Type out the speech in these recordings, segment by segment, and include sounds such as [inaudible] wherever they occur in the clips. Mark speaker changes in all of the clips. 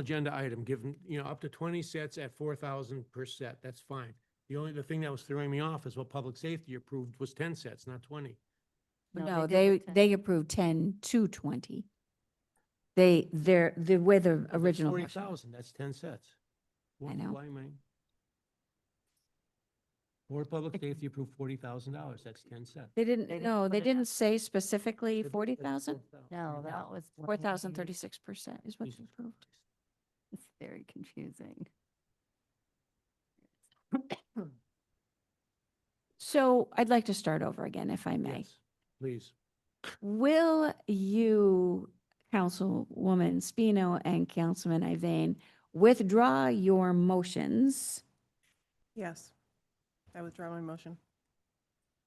Speaker 1: agenda item, give them, you know, up to twenty sets at four thousand per set, that's fine. The only, the thing that was throwing me off is what public safety approved was ten sets, not twenty.
Speaker 2: No, they, they approved 10 to 20. They, they're, the way the original.
Speaker 1: Forty
Speaker 2: version-
Speaker 1: thousand, that's ten sets.
Speaker 2: I know.
Speaker 1: Board of Public Safety approved forty thousand dollars, that's ten sets.
Speaker 2: They didn't,
Speaker 3: didn't
Speaker 2: no,
Speaker 3: put
Speaker 2: they
Speaker 3: it down.
Speaker 2: didn't say specifically
Speaker 1: It- it's
Speaker 2: 40,000?
Speaker 1: 4,000.
Speaker 3: No, that was.
Speaker 2: Four thousand thirty-six percent is what's
Speaker 1: Jesus
Speaker 2: approved.
Speaker 1: Christ.
Speaker 3: It's very confusing.
Speaker 2: So I'd like to start over again, if I may.
Speaker 1: Yes, Please.
Speaker 2: Will you, Councilwoman Spino and Councilman Iveyne, withdraw your motions?
Speaker 4: Yes. I withdraw my motion.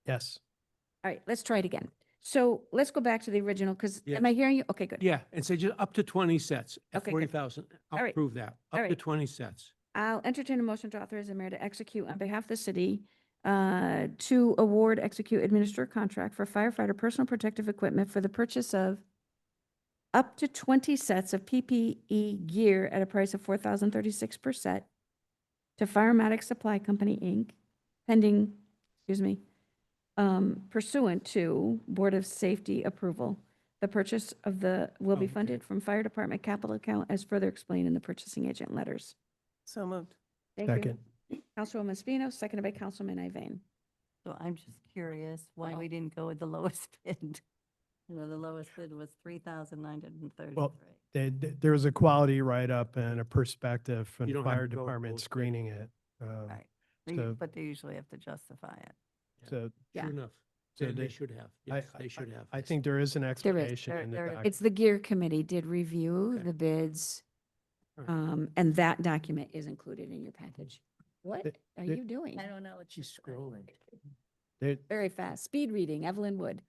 Speaker 5: Yes.
Speaker 2: All right, let's try it again. So let's go back to the original, because am I hearing you? Okay, good.
Speaker 1: Yeah, and say just up to twenty sets at
Speaker 2: Okay, good.
Speaker 1: forty thousand. I'll
Speaker 2: All right.
Speaker 1: approve that.
Speaker 2: All
Speaker 1: Up to
Speaker 2: right.
Speaker 1: twenty sets.
Speaker 2: I'll entertain a motion to authorize the mayor to execute on behalf of the city uh, to award, execute, administer a contract for firefighter personal protective equipment for the purchase of up to 20 sets of PPE gear at a price of $4,036 per set to Firematic Supply Company, Inc., pending, excuse me, um, pursuant to Board of Safety approval. The purchase of the, will
Speaker 1: Oh,
Speaker 2: be
Speaker 1: okay.
Speaker 2: funded from Fire Department capital account as further explained in the purchasing agent letters.
Speaker 4: So moved.
Speaker 2: Thank you. Councilwoman Spino, seconded by Councilman Iveyne.
Speaker 3: So I'm just curious why
Speaker 2: Wow.
Speaker 3: we didn't go with the lowest [laughs] bid. You know, the lowest bid was three thousand nine hundred and thirty-three.
Speaker 5: Well, They, th- there was a quality write-up and a perspective from
Speaker 1: You
Speaker 5: the
Speaker 1: don't have
Speaker 5: fire
Speaker 1: to go
Speaker 5: department
Speaker 1: full state.
Speaker 5: screening it. um,
Speaker 3: Right. They-
Speaker 5: so-
Speaker 3: But they usually have to justify it.
Speaker 1: Yeah.
Speaker 5: So
Speaker 2: Yeah.
Speaker 1: Sure enough.
Speaker 5: So
Speaker 1: They, they
Speaker 5: they-
Speaker 1: should have.
Speaker 5: I-
Speaker 1: Yes, they should have.
Speaker 5: I think there is an explanation
Speaker 3: There-
Speaker 5: in the
Speaker 3: there-
Speaker 5: document.
Speaker 2: It's the GEAR Committee did review
Speaker 1: Okay.
Speaker 2: the bids,
Speaker 1: All right.
Speaker 2: um, and that document is included in your package. What
Speaker 5: Th-
Speaker 2: are
Speaker 5: th-
Speaker 2: you doing?
Speaker 3: I don't know. It's
Speaker 1: She's
Speaker 3: just like-
Speaker 1: scrolling.
Speaker 5: There,
Speaker 2: Very fast, speed reading, Evelyn Wood.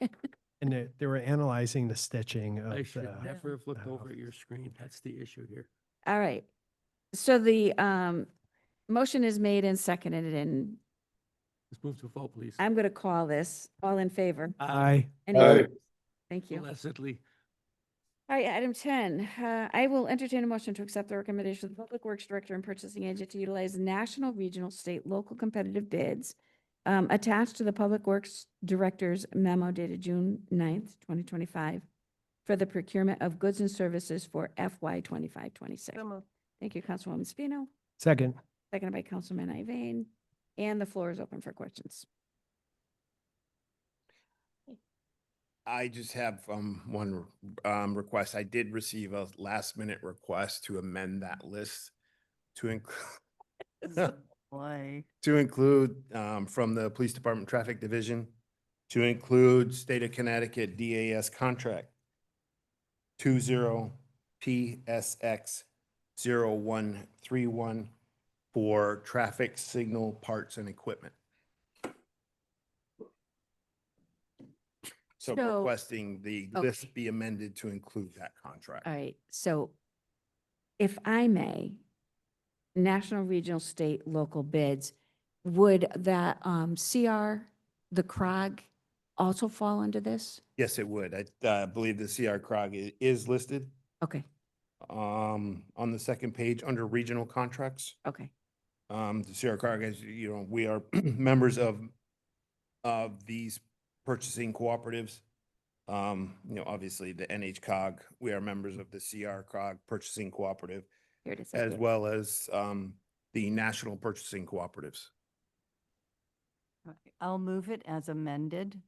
Speaker 5: and they, they were analyzing the stitching of
Speaker 1: I should
Speaker 5: the,
Speaker 1: never have looked
Speaker 5: uh,
Speaker 1: over at your screen. That's the issue here.
Speaker 2: All right. So the, um, motion is made and seconded, and
Speaker 1: Let's move to a vote, please.
Speaker 2: I'm going to call this, all in favor.
Speaker 5: I,
Speaker 2: Any
Speaker 6: Aye.
Speaker 2: opposed? Thank you.
Speaker 1: Blessedly.
Speaker 2: All right, item ten, uh, I will entertain a motion to accept the recommendation of the Public Works Director and Purchasing Agent to utilize national, regional, state, local competitive bids um, attached to the Public Works Director's memo dated June 9th, twenty twenty-five for the procurement of goods and services for FY twenty-five, twenty-six.
Speaker 4: So moved.
Speaker 2: Thank you, Councilwoman Spino,
Speaker 5: second,
Speaker 2: seconded by Councilman Iveyne, and the floor is open for questions.
Speaker 6: I just have um one r- um request. I did receive a last minute request to amend that list to include
Speaker 3: [laughs] Boy,
Speaker 6: to include um from the Police Department Traffic Division to include State of Connecticut DAS contract two zero PSX zero one three one for traffic signal parts and equipment. So
Speaker 2: So-
Speaker 6: requesting the
Speaker 2: Okay.
Speaker 6: list be amended to include that contract.
Speaker 2: All right, so if I may, national, regional, state, local bids, would that um, CR, the CROG, also fall under this?
Speaker 6: Yes, it would. I uh, believe the CR CROG i- is listed
Speaker 2: Okay,
Speaker 6: um on the second page under regional contracts.
Speaker 2: okay,
Speaker 6: Um, the Sierra Cargo, as you know, we are [clears throat] members of, of these purchasing cooperatives. Um, you know, obviously the NHCOG, we are members of the CR CROG Purchasing Cooperative,
Speaker 2: here it is. I
Speaker 6: as
Speaker 2: see it.
Speaker 6: well as, um, the National Purchasing Cooperatives.
Speaker 3: all right, I'll move it as amended.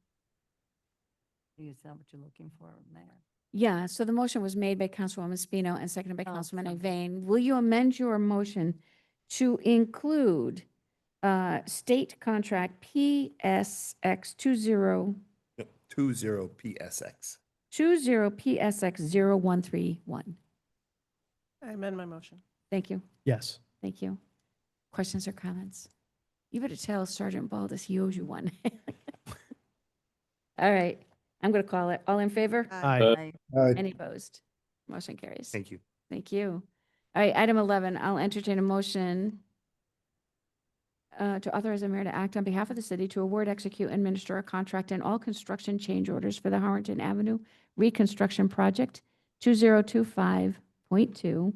Speaker 3: Is that what you're looking for, Mayor?
Speaker 2: Yeah, so the motion was made by Councilwoman Spino and seconded by
Speaker 3: Oh,
Speaker 2: Councilman
Speaker 3: sorry.
Speaker 2: Iveyne. Will you amend your motion to include uh, state contract PSX two zero,
Speaker 6: Two zero PSX.
Speaker 2: two zero PSX zero one three one?
Speaker 4: I amend my motion.
Speaker 2: Thank you.
Speaker 5: yes.
Speaker 2: Thank you. Questions or comments? You better tell Sergeant Baldus he owes you one. [laughs] All right, I'm going to call it. All in favor?
Speaker 5: I,
Speaker 3: I-
Speaker 2: Any opposed? Motion carries.
Speaker 6: Thank you.
Speaker 2: Thank you. All right, item 11, I'll entertain a motion uh, to authorize the mayor to act on behalf of the city to award, execute, and administer a contract and all construction change orders for the Harrington Avenue Reconstruction Project 2025.2